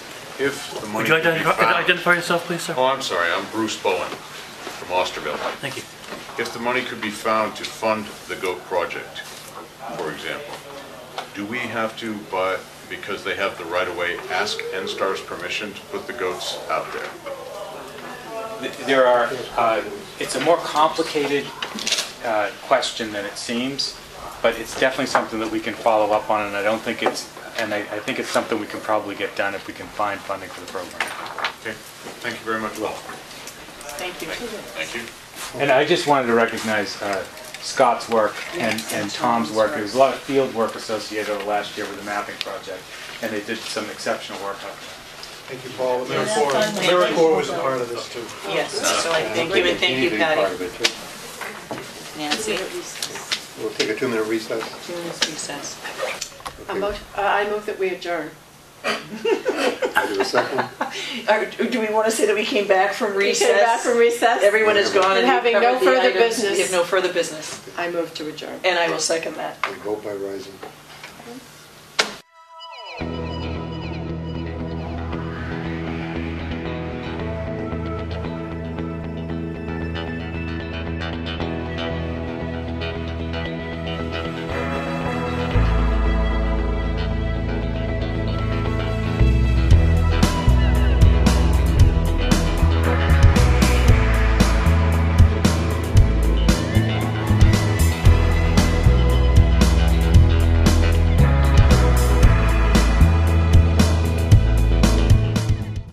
if the money Would you could be identify found... identify yourself, please, sir? Oh, I'm sorry, I'm Bruce Bowen from Osterville. Thank you. If the money could be found to fund the goat project, for example, do we have to, buy because they have the right-of-way, ask NSTAR's permission to put the goats out there? There are, uh, it's a more complicated uh, question than it seems, but it's definitely something that we can follow up on, and I don't think it's, and I I think it's something we can probably get done if we can find funding for the program. Okay, thank you very much. Well, Thank you. thank you. And I just wanted to recognize uh, Scott's work and and Tom's work. There was a lot of field work associated over last year with the mapping project, and they did some exceptional work on that. Thank you, Paul. that's on there. AmeriCorps was a part of this, too. Yes, so I Uh, thank you, and thank you, Patty. Nancy, We'll take a two-minute recess. during this recess. A mo- uh, I move that we adjourn. I do a second. Or Do we want to say that we came back from We recess? came back from recess. Everyone is gone and And we've having no covered the further items. We business. have no further business, I move to adjourn. and I will second that. We vote by rising.